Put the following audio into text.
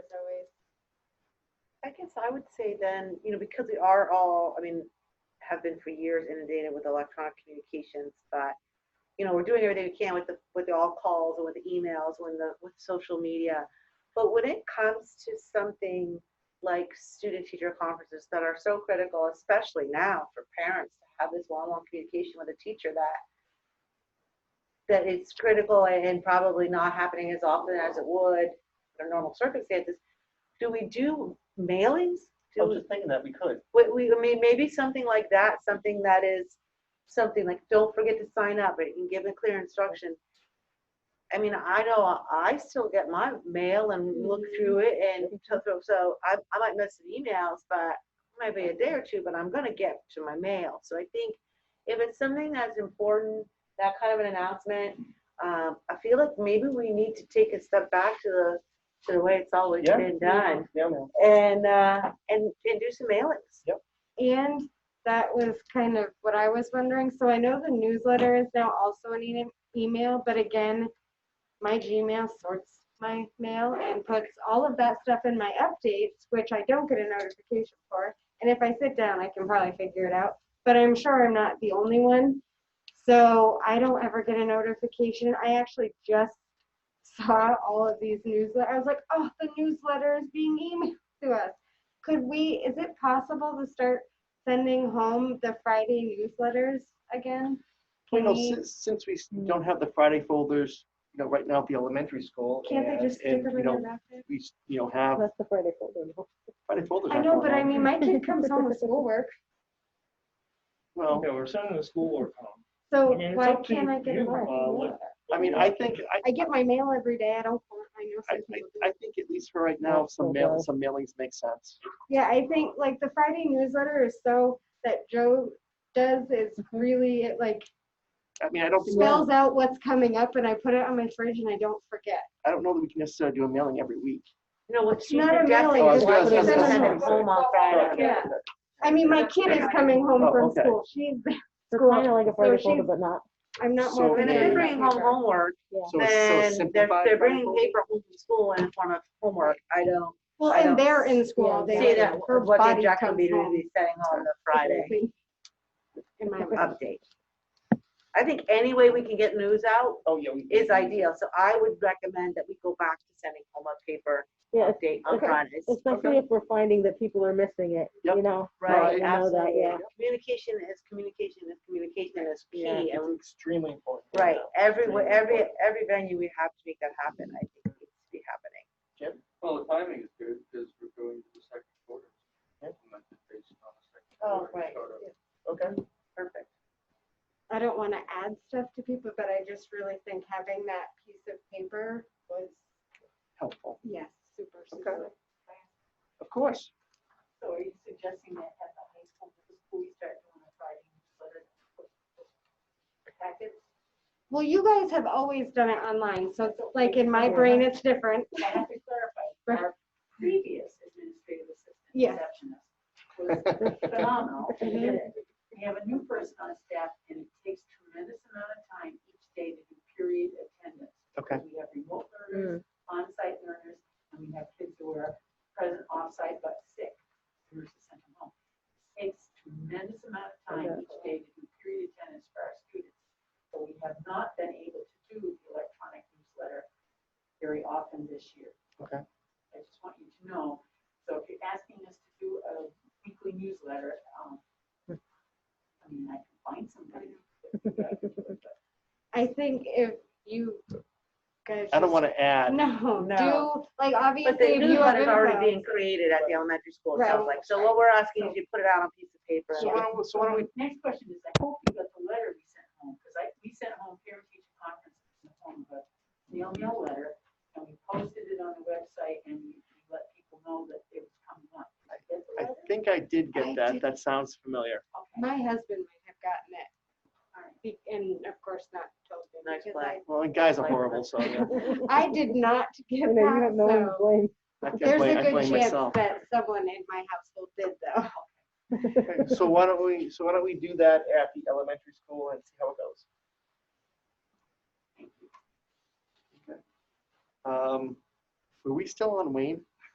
I guess I would say then, you know, because we are all, I mean, have been for years inundated with electronic communications, but, you know, we're doing everything we can with the, with the all calls and with the emails, when the, with social media. But when it comes to something like student teacher conferences that are so critical, especially now for parents to have this one-on-one communication with a teacher that that it's critical and and probably not happening as often as it would under normal circumstances. Do we do mailings? I Do was we, just thinking that we could. we, we- I mean, maybe something like that, something that is, something like, don't forget to sign up, but you can give a clear instruction. I mean, I know I still get my mail and look through it and so- so, so I, I might miss some emails, but maybe a day or two, but I'm gonna get to my mail. So I think if it's something that's important, that kind of an announcement, um, I feel like maybe we need to take a step back to the, to the way it's always Yeah. been done Yeah, man. and, uh, and, and do some mailings. And that was kind of what I was wondering. So I know the newsletter is now also an e- email, but again, my Gmail sorts my mail and puts all of that stuff in my updates, which I don't get a notification for. And if I sit down, I can probably figure it out. But I'm sure I'm not the only one. So I don't ever get a notification. I actually just saw all of these newsletters. I was like, oh, the newsletter is being emailed to us. Could we, is it possible to start sending home the Friday newsletters again? You Can know, we, since, since we s- don't have the Friday folders, you know, right now at the elementary school. can't they and- just stick and, them you in know, their basket? We, s- you know, have That's the Friday folder. Friday folders. I aren't know, going but I on. mean, my kid comes home with schoolwork, Well, Okay, we're sending the school work home. so I mean, it's why up to can't I get you, it back? uh, what- I mean, I think, I, I get my mail every day, I don't, want- I know I, some people do. I, I think at least for right now, some mail, some mailings make sense. Yeah, I think like the Friday newsletter is so, that Joe does is Mm-hmm. really, it like I mean, I don't think, spells out what's coming up and I put it on my fridge and I don't forget. I don't know that we can necessarily do a mailing every week. No, what It's she's not a suggesting mailing, is it's why just we a send them sentence. home on uh, Friday. Yeah. I mean, my kid is coming home Oh, from okay. school, she's, So Cool. kind of like a So Friday folder, she's- but not. I'm not So more. And if Yeah. they're bringing home homework, So, so then they're, simplify. they're bringing paper home from school in the form of homework. I don't Well, I and don't they're in school yeah, all day. see long. that, Her what the body objective would be comes to home. be setting on the Friday Um, In my mind. update. I think any way we can get news out Oh, yeah. we- is ideal, so I would recommend that we go back to sending home a paper Yeah, es- update on okay. Fridays. especially if we're finding that people are missing it, you Yep. know? Right, I know that, absolutely. yeah. Communication is communication is communication is key, Yeah, and It's extremely important. Right, everywhere, Right. every, every venue, we have to make that happen, I think it needs to be happening. Well, the timing is good because we're going to the second quarter. Yeah. Implemented based on the second Oh, quarter right, startup. Okay. perfect. I don't want to add stuff to people, but I just really think having that piece of paper was, Helpful. yes, super, Okay. super. Of course. So are you suggesting that at the high school, the school start doing the Friday newsletter? Packets? Well, you guys have always done it online, so it's like in my brain, it's different. I have to clarify, our previous administrative assistant Yes. receptionist was phenomenal. She did Mm-hmm. it. We have a new person on staff, and it takes tremendous amount of time each day to do period attendance. Okay. We have remote learners, on-site learners, and we have kids who are present off-site but sick. so We're to send them home. Takes tremendous amount of time each day to do period attendance for our students. So we have not been able to do the electronic newsletter very often this year. Okay. I just want you to know, so if you're asking us to do a weekly newsletter, um, I mean, I can find somebody. I think if you guys. I just- don't want to add. No, do, No. like But the obviously if you have newsletter's already info. being created at the elementary school, it sounds Right. like, so what we're asking is you put it out on a piece of paper. So why don't, we- so why don't we, Next question is, I hope you got the letter we sent home, because I, we sent home parent teacher conference in the form of a snail mail letter, and we posted it on the website, and we we let people know that it was coming up. Did you get I the letter? think I did I get that. did. That sounds familiar. Okay, My husband might have gotten it, all right. be- and of course not told me. Nice because play. Well, and guys are horrible, so yeah. I I did not get You know, you have that, no one to so. blame. I can't There's blame- a I good blame chance myself. that someone in my household did though. Okay, So why don't we, so why don't we do that at the elementary school and see how it goes? Okay. Um, Were we still on Wayne?